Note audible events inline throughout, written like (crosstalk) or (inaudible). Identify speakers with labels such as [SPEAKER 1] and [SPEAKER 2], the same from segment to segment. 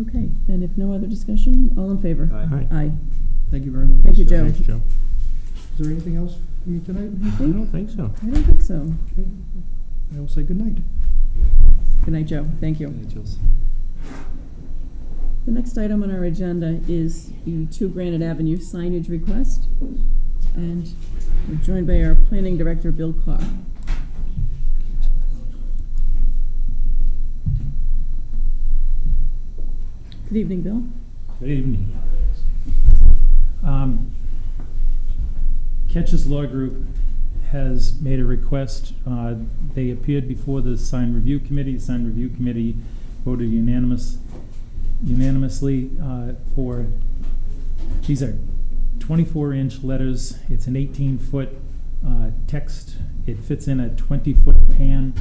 [SPEAKER 1] Okay, then if no other discussion, all in favor?
[SPEAKER 2] Aye.
[SPEAKER 3] Aye.
[SPEAKER 1] Aye.
[SPEAKER 2] Thank you very much.
[SPEAKER 1] Thank you, Joe.
[SPEAKER 3] Thanks, Joe.
[SPEAKER 2] Is there anything else for me tonight?
[SPEAKER 1] I
[SPEAKER 4] Mm-hmm.
[SPEAKER 3] I don't
[SPEAKER 1] think,
[SPEAKER 3] think so.
[SPEAKER 1] I don't think so.
[SPEAKER 2] Okay, I will say good night.
[SPEAKER 1] Good night, Joe. Thank you. The next item on our agenda is the Two Granite Avenue signage request. And we're joined by our planning director, Bill Carr. Good evening, Bill.
[SPEAKER 4] Good evening. Um, Ketch's Law Group has made a request. Uh, They appeared before the sign review committee. The sign review committee voted unanimous, unanimously uh, for, these are 24-inch letters. It's an 18-foot text. It fits in a 20-foot pan,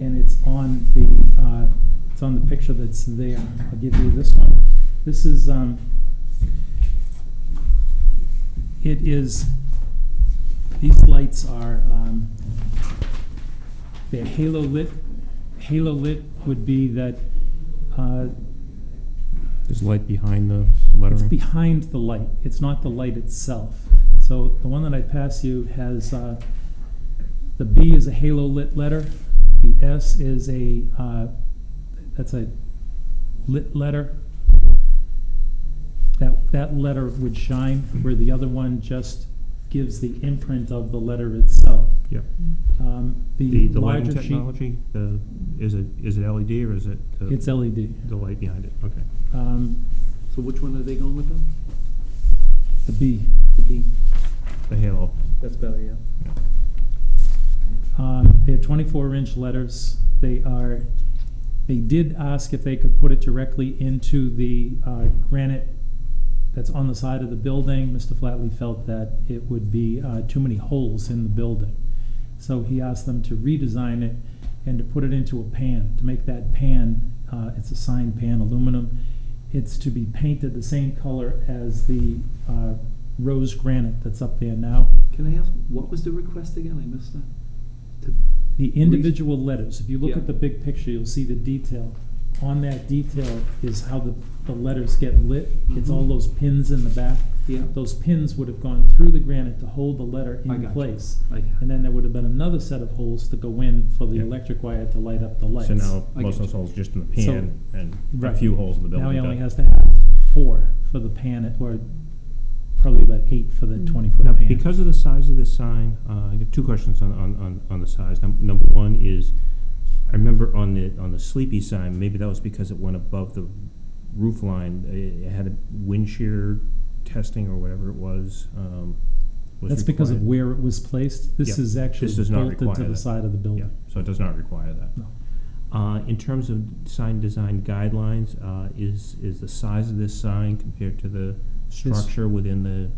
[SPEAKER 4] and it's on the, uh, it's on the picture that's there. I'll give you this one. This is, um, it is, these lights are, um, they're halo lit. Halo lit would be that, uh,
[SPEAKER 3] There's light behind the lettering.
[SPEAKER 4] it's behind the light. It's not the light itself. So the one that I pass you has, uh, the B is a halo lit letter. The S is a, uh, that's a lit letter. That, that letter would shine where the other one just gives the imprint of the letter itself.
[SPEAKER 3] Yep.
[SPEAKER 4] Um,
[SPEAKER 3] The,
[SPEAKER 4] the
[SPEAKER 3] the lighting
[SPEAKER 4] larger sheet,
[SPEAKER 3] technology, the, is it, is it LED or is it? the-
[SPEAKER 4] it's E LED.
[SPEAKER 3] The light behind it, okay.
[SPEAKER 4] Um,
[SPEAKER 2] So which one are they going with them?
[SPEAKER 4] the B.
[SPEAKER 2] The D.
[SPEAKER 3] The halo.
[SPEAKER 2] That's better, yeah.
[SPEAKER 3] Yeah.
[SPEAKER 4] Um, They have twenty-four inch letters. They are, they did ask if they could put it directly into the uh, granite that's on the side of the building. Mr. Flatley felt that it would be uh, too many holes in the building. So he asked them to redesign it and to put it into a pan, to make that pan, uh, it's a sign pan, aluminum. It's to be painted the same color as the uh, rose granite that's up there now.
[SPEAKER 5] Can I ask, what was the request again? I missed that. To-
[SPEAKER 4] The individual letters, if you look
[SPEAKER 5] Yeah.
[SPEAKER 4] at the big picture, you'll see the detail. On that detail is how the, the letters get lit.
[SPEAKER 3] Mm-hmm.
[SPEAKER 4] It's all
[SPEAKER 5] Mhm.
[SPEAKER 4] those pins in the back.
[SPEAKER 5] Yeah.
[SPEAKER 4] Those pins would have gone through the granite to hold the letter
[SPEAKER 5] I
[SPEAKER 4] in
[SPEAKER 5] gotcha.
[SPEAKER 4] place.
[SPEAKER 5] I-
[SPEAKER 4] And then there would have been another set of holes to go in for the
[SPEAKER 3] Yeah.
[SPEAKER 4] electric wire to light up the lights.
[SPEAKER 3] So now,
[SPEAKER 5] I
[SPEAKER 3] most
[SPEAKER 5] get
[SPEAKER 3] of those
[SPEAKER 5] you.
[SPEAKER 3] holes just in the
[SPEAKER 4] So-
[SPEAKER 3] pan and a
[SPEAKER 4] Right.
[SPEAKER 3] few holes in the building.
[SPEAKER 4] Now he only
[SPEAKER 3] but-
[SPEAKER 4] has to have four for the pan, or probably about eight for the
[SPEAKER 1] Mm.
[SPEAKER 4] twenty-foot
[SPEAKER 3] Now,
[SPEAKER 4] pan.
[SPEAKER 3] because of the size of this sign, uh, I got two questions on, on, on, on the size. Num- Number one is, I remember on the, on the sleepy sign, maybe that was because it went above the roof line, it it had a wind shear testing or whatever it was, um, was
[SPEAKER 4] That's because of
[SPEAKER 3] required.
[SPEAKER 4] where it was placed. This
[SPEAKER 3] Yeah.
[SPEAKER 4] is actually
[SPEAKER 3] This does not
[SPEAKER 4] bolted to
[SPEAKER 3] require
[SPEAKER 4] the
[SPEAKER 3] that.
[SPEAKER 4] side of the
[SPEAKER 3] Yeah,
[SPEAKER 4] building.
[SPEAKER 3] so it does not require that.
[SPEAKER 4] No.
[SPEAKER 3] Uh, in terms of sign design guidelines, uh, is, is the size of this sign compared to the structure within the,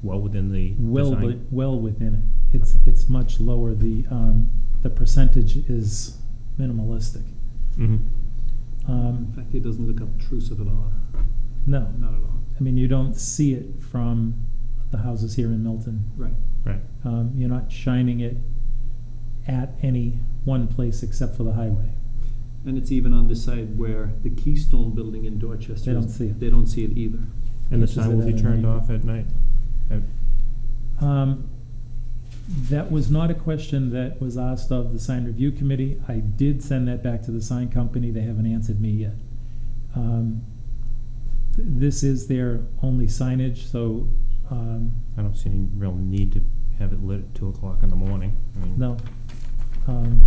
[SPEAKER 3] well, within the
[SPEAKER 4] well,
[SPEAKER 3] design?
[SPEAKER 4] wi- well within it. It's,
[SPEAKER 3] Okay.
[SPEAKER 4] it's much lower. The, um, the percentage is minimalistic.
[SPEAKER 3] Mhm.
[SPEAKER 5] In
[SPEAKER 4] Um,
[SPEAKER 5] fact, it doesn't look obtrusive at all.
[SPEAKER 4] no,
[SPEAKER 5] Not at all.
[SPEAKER 4] I mean, you don't see it from the houses here in Milton.
[SPEAKER 5] Right.
[SPEAKER 3] Right.
[SPEAKER 4] Um, you're not shining it at any one place except for the highway.
[SPEAKER 5] And it's even on the side where the Keystone Building in Dorchester.
[SPEAKER 4] They don't
[SPEAKER 5] is-
[SPEAKER 4] see it.
[SPEAKER 5] They don't see it either.
[SPEAKER 3] And the
[SPEAKER 4] Which is
[SPEAKER 3] sign will be
[SPEAKER 4] another
[SPEAKER 3] turned
[SPEAKER 4] neighbor.
[SPEAKER 3] off at night? At-
[SPEAKER 4] Um, That was not a question that was asked of the sign review committee. I did send that back to the sign company, they haven't answered me yet. Um, th- This is their only signage, so, um,
[SPEAKER 3] I don't see any real need to have it lit at two o'clock in the morning. I mean,
[SPEAKER 4] no. Um,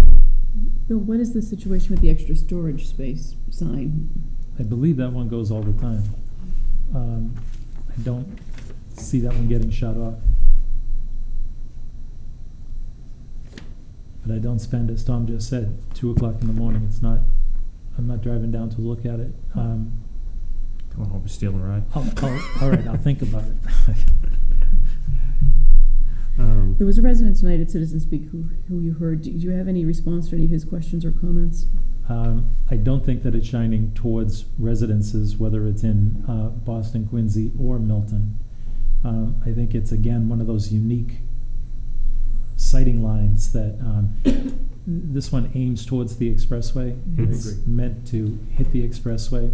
[SPEAKER 1] Bill, what is the situation with the extra storage space sign?
[SPEAKER 4] I believe that one goes all the time. Um, I don't see that one getting shut off. But I don't spend, as Tom just said, two o'clock in the morning, it's not, I'm not driving down to look at it. Um,
[SPEAKER 3] Going home and stealing a ride.
[SPEAKER 4] I'll, I'll, all right, I'll think about it.
[SPEAKER 3] (laughs) Um,
[SPEAKER 1] There was a resident tonight at Citizen Speak who, who you heard. Do you have any response to any of his questions or comments?
[SPEAKER 4] Um, I don't think that it's shining towards residences, whether it's in, uh, Boston, Quincy, or Milton. Um, I think it's again, one of those unique sighting lines that, um, (coughs) this one aims towards the expressway.
[SPEAKER 3] Mhm.
[SPEAKER 4] It's meant to hit the expressway.